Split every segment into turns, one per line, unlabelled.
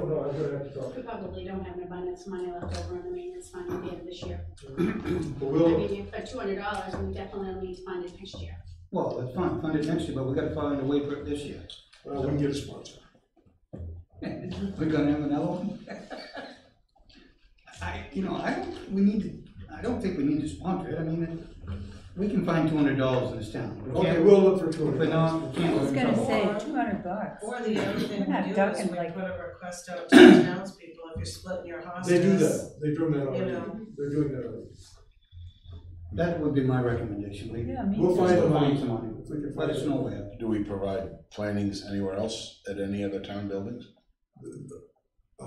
I'll go back to talk.
We probably don't have an abundance of money left over in the maintenance fund at the end of this year.
But
I
we'll, uh,
mean, if- for two hundred dollars, we definitely will need to fund it next year.
Well, that's fine, fund it next year, but we gotta find a way for it this year.
uh, we can get a sponsor.
We're gonna have another one? I, you know, I don't, we need to, I don't think we need to sponsor it, I mean, it- we can find two hundred dollars in this town. We
Okay,
can't-
we'll look for two
If
hundred
we're not, we
dollars.
can't.
I was
we're in
gonna
trouble.
say, two hundred bucks.
Or the other thing
We're not
we do is
ducking
we
like-
put a request out to the townspeople, if you're splitting your hospice.
They do that, they're doing that already,
know.
they're doing that already.
That would be my recommendation, we.
Yeah, me
We'll
too.
find the
We'll
money.
some money.
If we can
Let
find
us
it.
know where.
Do we provide plantings anywhere else at any other town buildings?
Uh,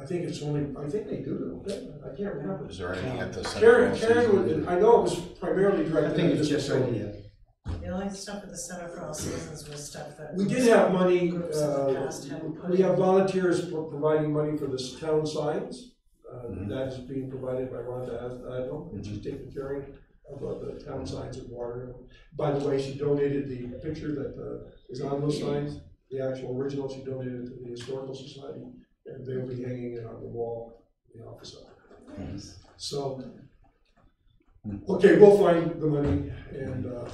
I think it's only, I think they do, don't they? I can't remember.
Is there any at the Center
Karen,
for
Karen, was- I know it was primarily
I
directed.
think
at this
it's just right
facility.
here.
The only stuff at the Center for All Seasons was stuff that.
We did have money,
Groups in the
uh,
past have put
we have
in.
volunteers pro- providing money for this town signs. Uh,
Mhm.
That is being provided by Rhonda Ad- Adel, and she's taking care of uh, the town signs in Water. By the way, she donated the picture that uh, is on those signs, the actual original, she donated it to the Historical Society, and they'll be hanging it on the wall in the office. So, okay, we'll find the money, and uh,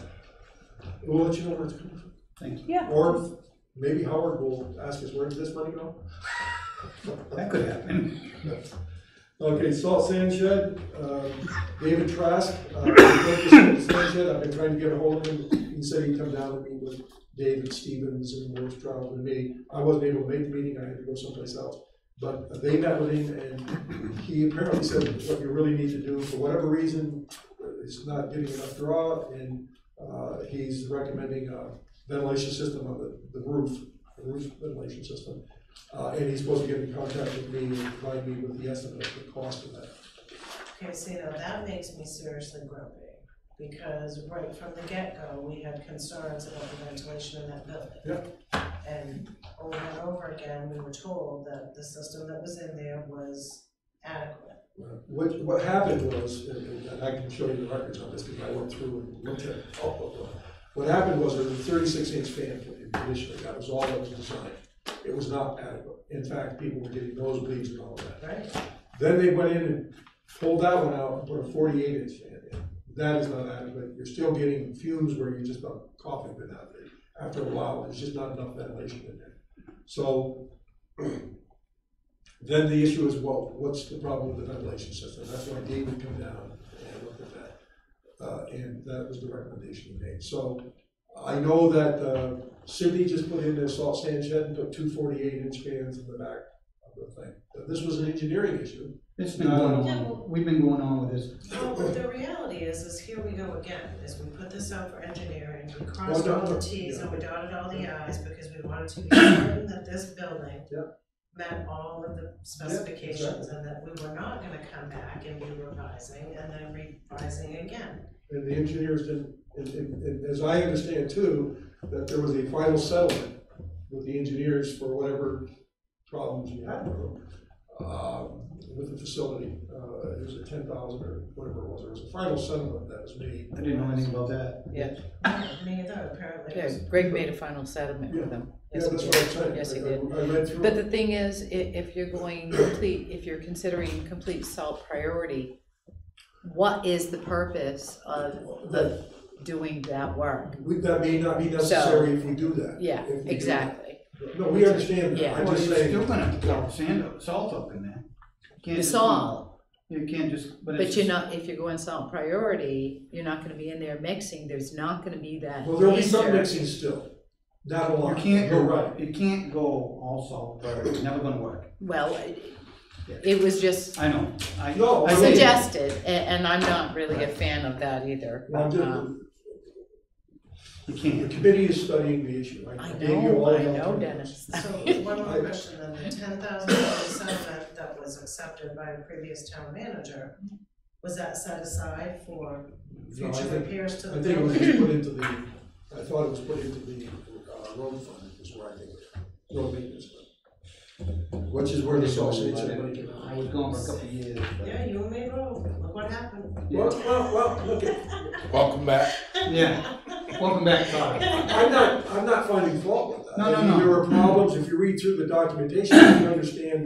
we'll let you know where it's coming from.
Thank you.
Yeah.
Or maybe Howard will ask us, where did this money go?
That could happen.
Okay, salt sand shed, uh, David Trask, uh, who built the salt sand shed, I've been trying to get a hold of him. He said he'd come down and meet with David Stevens and Morris Trout and me. I wasn't able to make the meeting, I had to go someplace else. But they met with him and he apparently said, what you really need to do, for whatever reason, uh, is not getting enough draw and uh, he's recommending a ventilation system on the, the roof, a roof ventilation system. Uh, and he's supposed to get in contact with me and provide me with the estimate of the cost of that.
Okay, see, now that makes me seriously grumpy, because right from the get-go, we had concerns about the ventilation in that building. And over and over again, we were told that the system that was in there was adequate.
Uh, What, what happened was, and and I can show you the records on this, because I went through and looked at all of them. What happened was, there was a thirty-six inch fan for the conditioner, that was all that was designed. It was not adequate, in fact, people were getting nosebleeds and all of that.
Right.
Then they went in and pulled that one out and put a forty-eight inch fan in. That is not adequate, you're still getting fumes where you're just about coughing it out. After a while, there's just not enough ventilation in there. So then the issue is, well, what's the problem with the ventilation system? That's why David come down and looked at that. Uh, and that was the recommendation he made. So I know that uh, Sydney just put in their salt sand shed and put two forty-eight inch fans in the back of the thing. But This was an engineering issue.
It's been going on, we've been going on with this.
Well, but the reality is, is here we go again, is we put this out for engineering, we
Well
crossed
done,
all the
yeah.
Ts and we dotted all the Is because we wanted to be certain that this building
Yeah.
met all of the specifications and that we were not gonna come back and be revising and then revising again.
And the engineers didn't, and, and, and as I understand too, that there was a final settlement with the engineers for whatever problems you had with them, uh, with the facility. Uh, it was a ten thousand or whatever it was, there was a final settlement that was made.
I didn't know anything about that.
Neither apparently.
Yeah, Greg made a final settlement with them.
Yeah,
Yes, he
that's
did.
what I'm saying.
Yes, he
I- I-
did.
I read through
But
it.
the thing is, i- if you're going complete, if you're considering complete salt priority, what is the purpose of the, doing that work?
We- That may not be necessary if we do that.
Yeah,
if we do that.
exactly.
No, we understand that,
Yeah.
I'm
Well,
just
you're
saying,
still gonna throw sand, up- salt up in there. Can't
The
just-
salt.
You can't just, but it's
But you're
just,
not, if you're going salt priority, you're not gonna be in there mixing, there's not gonna be that
well, there'll be some
danger.
mixing still, not a
you
lot,
can't
you're
go,
right.
right. it can't go all salt, but it's never gonna work.
Well, it- it was just
I know, I,
No, I
I
mean-
get it.
suggested, a- and I'm not really a fan of that either.
Well, I'm just-
Um,
You
The
can't.
committee is studying the issue.
I
gave you
know,
all
I
the
know,
alternatives.
Dennis.
So one more question, then the ten thousand dollar settlement that was accepted by a previous town manager, was that set aside for
No, I
future
think-
repairs to
I
the
think it
building?
was just put into the, I thought it was put into the uh, road fund is where I think, it- road maintenance fund. Which is where the sausage and money came
I
out.
was gone for a couple of years, but-
Yeah, you and me both, look what happened.
Well, well, well, look, it-
Welcome back.
yeah, welcome back, Todd.
I'm not, I'm not finding fault with that.
No, no,
I mean,
no.
There are problems, if you read through the documentation, you understand